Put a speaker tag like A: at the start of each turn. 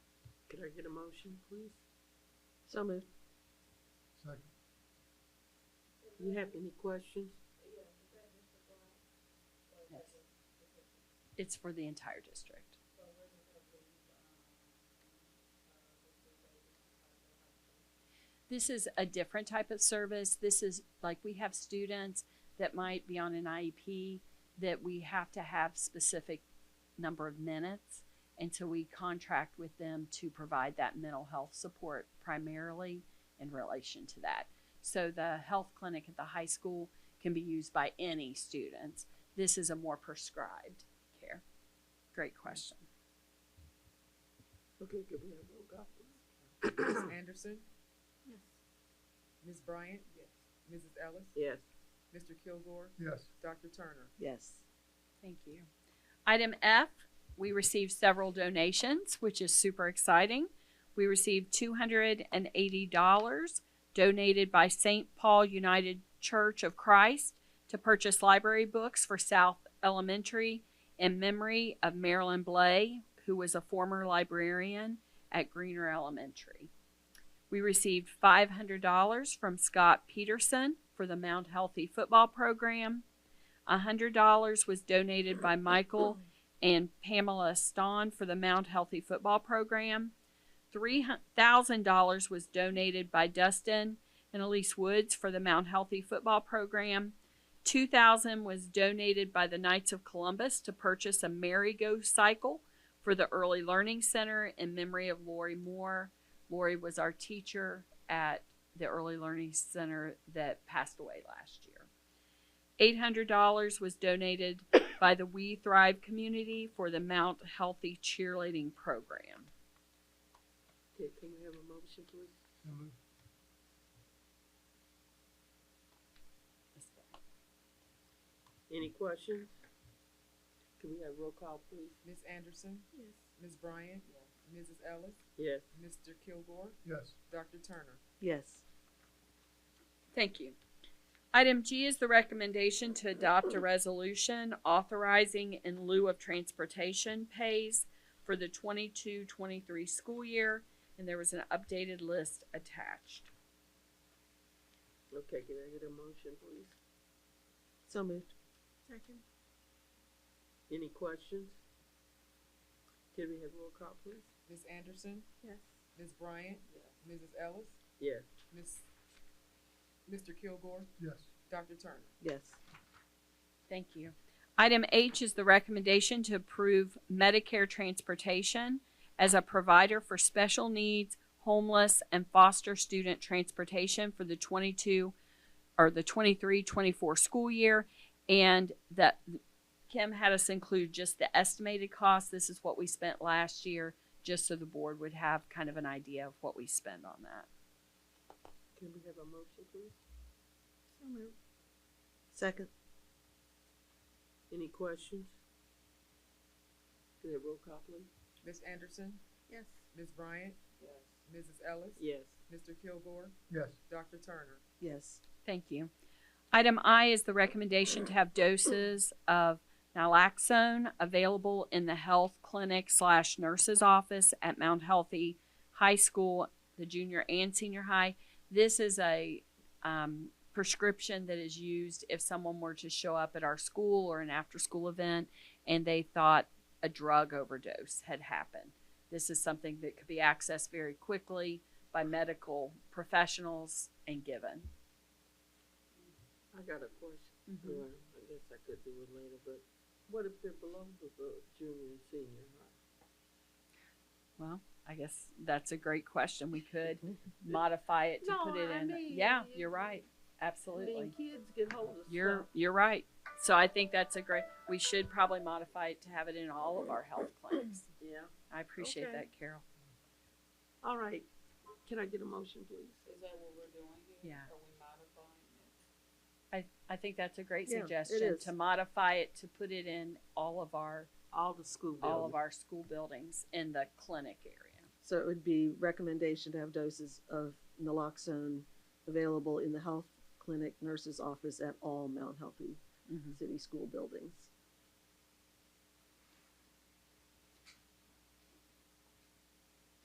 A: I get a motion, please?
B: So moved.
C: Second.
A: You have any questions?
D: It's for the entire district. This is a different type of service. This is like we have students that might be on an IEP that we have to have specific number of minutes until we contract with them to provide that mental health support primarily in relation to that. So the health clinic at the high school can be used by any students. This is a more prescribed care. Great question.
A: Okay, could we have roll call, please?
E: Ms. Anderson,
B: Yes.
E: Ms. Bryant? Mrs. Ellis?
A: Yes.
E: Mr. Kilgore?
C: Yes.
E: Dr. Turner?
B: Yes.
D: Thank you. Item F, we received several donations, which is super exciting. We received two hundred and eighty dollars donated by St. Paul United Church of Christ to purchase library books for South Elementary in memory of Marilyn Blay, who was a former librarian at Greener Elementary. We received five hundred dollars from Scott Peterson for the Mount Healthy Football Program. A hundred dollars was donated by Michael and Pamela Stahn for the Mount Healthy Football Program. Three thousand dollars was donated by Dustin and Elise Woods for the Mount Healthy Football Program. Two thousand was donated by the Knights of Columbus to purchase a merry-go cycle for the Early Learning Center in memory of Lori Moore. Lori was our teacher at the Early Learning Center that passed away last year. Eight hundred dollars was donated by the We Thrive community for the Mount Healthy Cheerleading Program.
A: Okay, can we have a motion, please?
C: So moved.
A: Any questions? Can we have roll call, please?
E: Ms. Anderson,
B: Yes.
E: Ms. Bryant? Mrs. Ellis?
A: Yes.
E: Mr. Kilgore?
C: Yes.
E: Dr. Turner?
B: Yes.
D: Thank you. Item G is the recommendation to adopt a resolution authorizing in lieu of transportation pays for the 22-23 school year, and there was an updated list attached.
A: Okay, can I get a motion, please?
B: So moved. Second.
A: Any questions? Can we have roll call, please?
E: Ms. Anderson,
B: Yes.
E: Ms. Bryant? Mrs. Ellis?
A: Yes.
E: Ms. Mr. Kilgore?
C: Yes.
E: Dr. Turner?
B: Yes.
D: Thank you. Item H is the recommendation to approve Medicare transportation as a provider for special needs, homeless, and foster student transportation for the twenty-two or the 23-24 school year. And that Kim had us include just the estimated cost. This is what we spent last year, just so the board would have kind of an idea of what we spend on that.
A: Can we have a motion, please?
B: So moved. Second.
A: Any questions? Can we have roll call, please?
E: Ms. Anderson,
B: Yes.
E: Ms. Bryant? Mrs. Ellis?
A: Yes.
E: Mr. Kilgore?
C: Yes.
E: Dr. Turner?
B: Yes.
D: Thank you. Item I is the recommendation to have doses of naloxone available in the health clinic slash nurse's office at Mount Healthy High School, the junior and senior high. This is a um, prescription that is used if someone were to show up at our school or an after-school event and they thought a drug overdose had happened. This is something that could be accessed very quickly by medical professionals and given.
A: I got a question. Well, I guess I could do it later, but what if they're below the the junior and senior high?
D: Well, I guess that's a great question. We could modify it to put it in. yeah, you're right.
A: I
D: Absolutely.
A: mean, kids get hold of
D: You're
A: stuff.
D: you're right. So I think that's a great. We should probably modify it to have it in all of our health clinics.
A: Yeah.
D: I appreciate
A: Okay.
D: that, Carol.
A: All right. Can I get a motion, please?
D: Yeah. I I think that's a great
B: Yeah, it
D: suggestion
B: is.
D: to modify it to put it in all of our
A: All the school
D: all
A: buildings.
D: of our school buildings in the clinic area.
B: So it would be recommendation to have doses of naloxone available in the health clinic nurse's office at all Mount Healthy
D: Mm-hmm.
B: City school buildings.